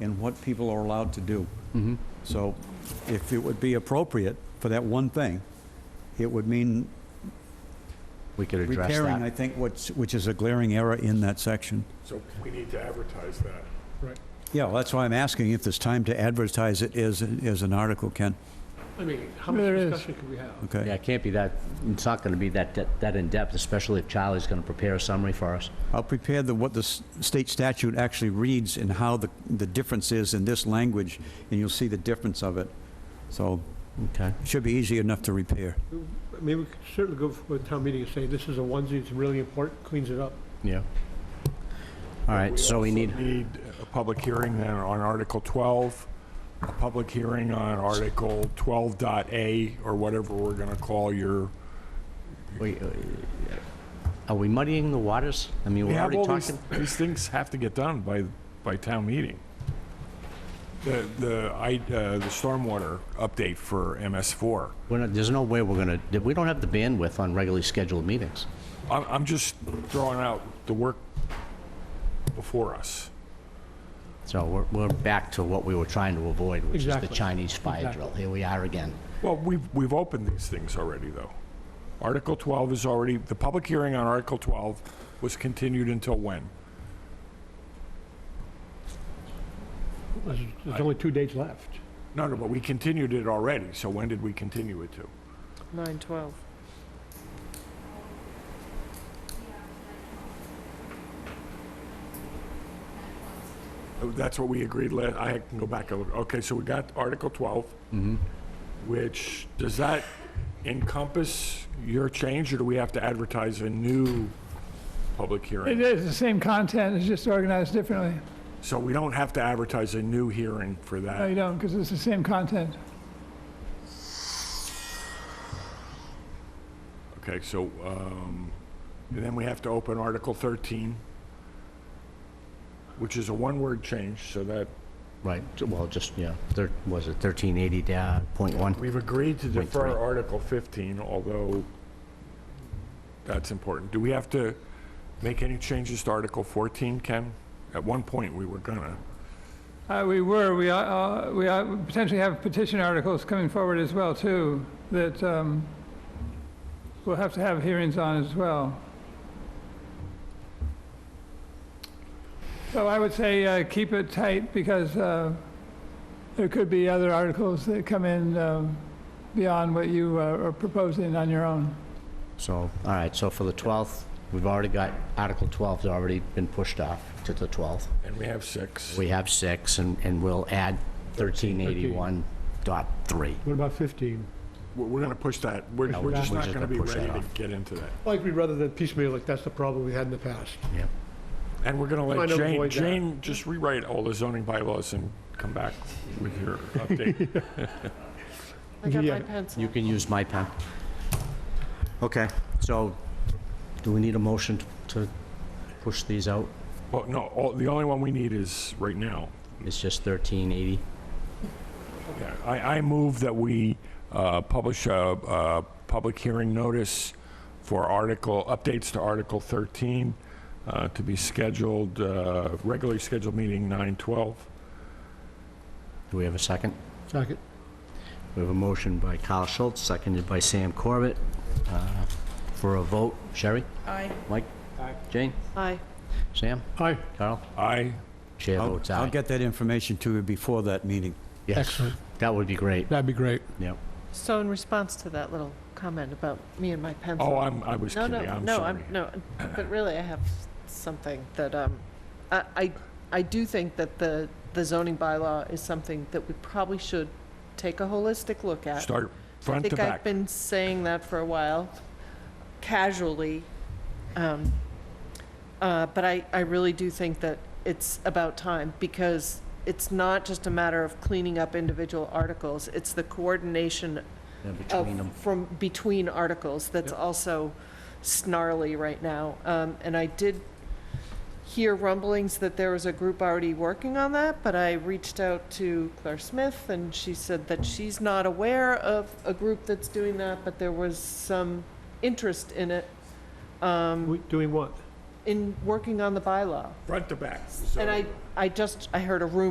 and what people are allowed to do. Mm-hmm. So if it would be appropriate for that one thing, it would mean We could address repairing, I that. think, what's, which is a glaring error in that section. So we need to advertise that. Right. Yeah, well, that's why I'm asking if there's time to advertise it as, as an article, Ken. I mean, how much There is. discussion could we have? Yeah, Okay? it can't be that, it's not going to be that, that- that in-depth, especially if Charlie's going to prepare a summary for us. I'll prepare the, what the s- state statute actually reads and how the, the difference is in this language, and you'll see the difference of it. So Okay. it should be easy enough to repair. I mean, we could certainly go for a town meeting and say, this is a onesie, it's really important, cleans it up. Yeah. All right, so we need, also need a public hearing then on Article 12, a public hearing on Article 12 dot A, or whatever we're going to call your, we- uh, are we muddying the waters? I mean, we we're have already all these, talking. these things have to get done by, by town meeting. The, the, I, uh, the stormwater update for MS4. We're not, there's no way we're going to, we don't have the bandwidth on regularly scheduled meetings. I'm, I'm just throwing out the work before us. So we're, we're back to what we were trying to avoid, which is the Exactly. Chinese fire drill. Here we are again. Well, we've, we've opened these things already, though. Article 12 is already, the public hearing on Article 12 was continued until when? There's, there's only two dates left. No, no, but we continued it already, so when did we continue it to? Nine twelve. That's what we agreed last, I can go back a little, okay, so we got Article 12. Which, does that encompass your change, or do we have to advertise a new public It hearing? is the same content, it's just organized differently. So we don't have to advertise a new hearing for No, that? you don't, because it's the same content. Okay, so, um, and then we have to open Article 13, which is a one-word change, so that, Right, well, just, yeah, thir- was it uh, 1380.1? we've agreed to Point defer three. Article 15, although that's important. Do we have to make any changes to Article 14, Ken? At one point, we were gonna. Uh, we were, we are, uh, we are, we potentially have petition articles coming forward as well, too, that, um, we'll have to have hearings on as well. So I would say, uh, keep it tight, because, uh, there could be other articles that come in, um, beyond what you uh, are proposing on your own. So, all right, so for the 12th, we've already got, Article 12's already been pushed off to the 12th. And we have six. We have six, and, and we'll add 1381.3. What about 15? We're, we're gonna push that. We're, No, we're just we're not just gonna gonna be push that ready to off. get into that. Like, we rather than piecemeal, like, that's the problem we had in the past. Yeah. And we're gonna let Trying to Jane, avoid that. Jane just rewrite all the zoning bylaws and come back with your update. I got my Yeah. pencil. You can use my pen. Okay, so do we need a motion to push these out? Well, no, all, the only one we need is right now. It's just 1380? Yeah, I, I move that we uh, publish a, a public hearing notice for article, updates to Article 13 uh, to be scheduled, uh, regularly scheduled meeting 9/12. Do we have a second? Second. We have a motion by Kyle Schultz, seconded by Sam Corbett. Uh, For a vote, Sherry? Aye. Mike? Jane? Aye. Sam? Aye. Carl? Aye. Chair I'll, votes aye. I'll get that information to you before that meeting. Yes. Excellent. That would be great. That'd be great. Yep. So in response to that little comment about me and my pencil. Oh, I'm, I was No, kidding, no, I'm no, sorry. I'm, no, but really I have something that, um, I, I, I do think that the, the zoning bylaw is something that we probably should take a holistic look at. Start front to I think I've back. been saying that for a while, casually. Um, uh, But I, I really do think that it's about time, because it's not just a matter of cleaning up individual articles, it's the coordination Yeah, Between them. of, from, between articles that's also snarly right now. Um, And I did hear rumblings that there was a group already working on that, but I reached out to Claire Smith, and she said that she's not aware of a group that's doing that, but there was some interest in it, We- Doing what? in working on the bylaw. Front to back. And so- I, I just, I heard a rumor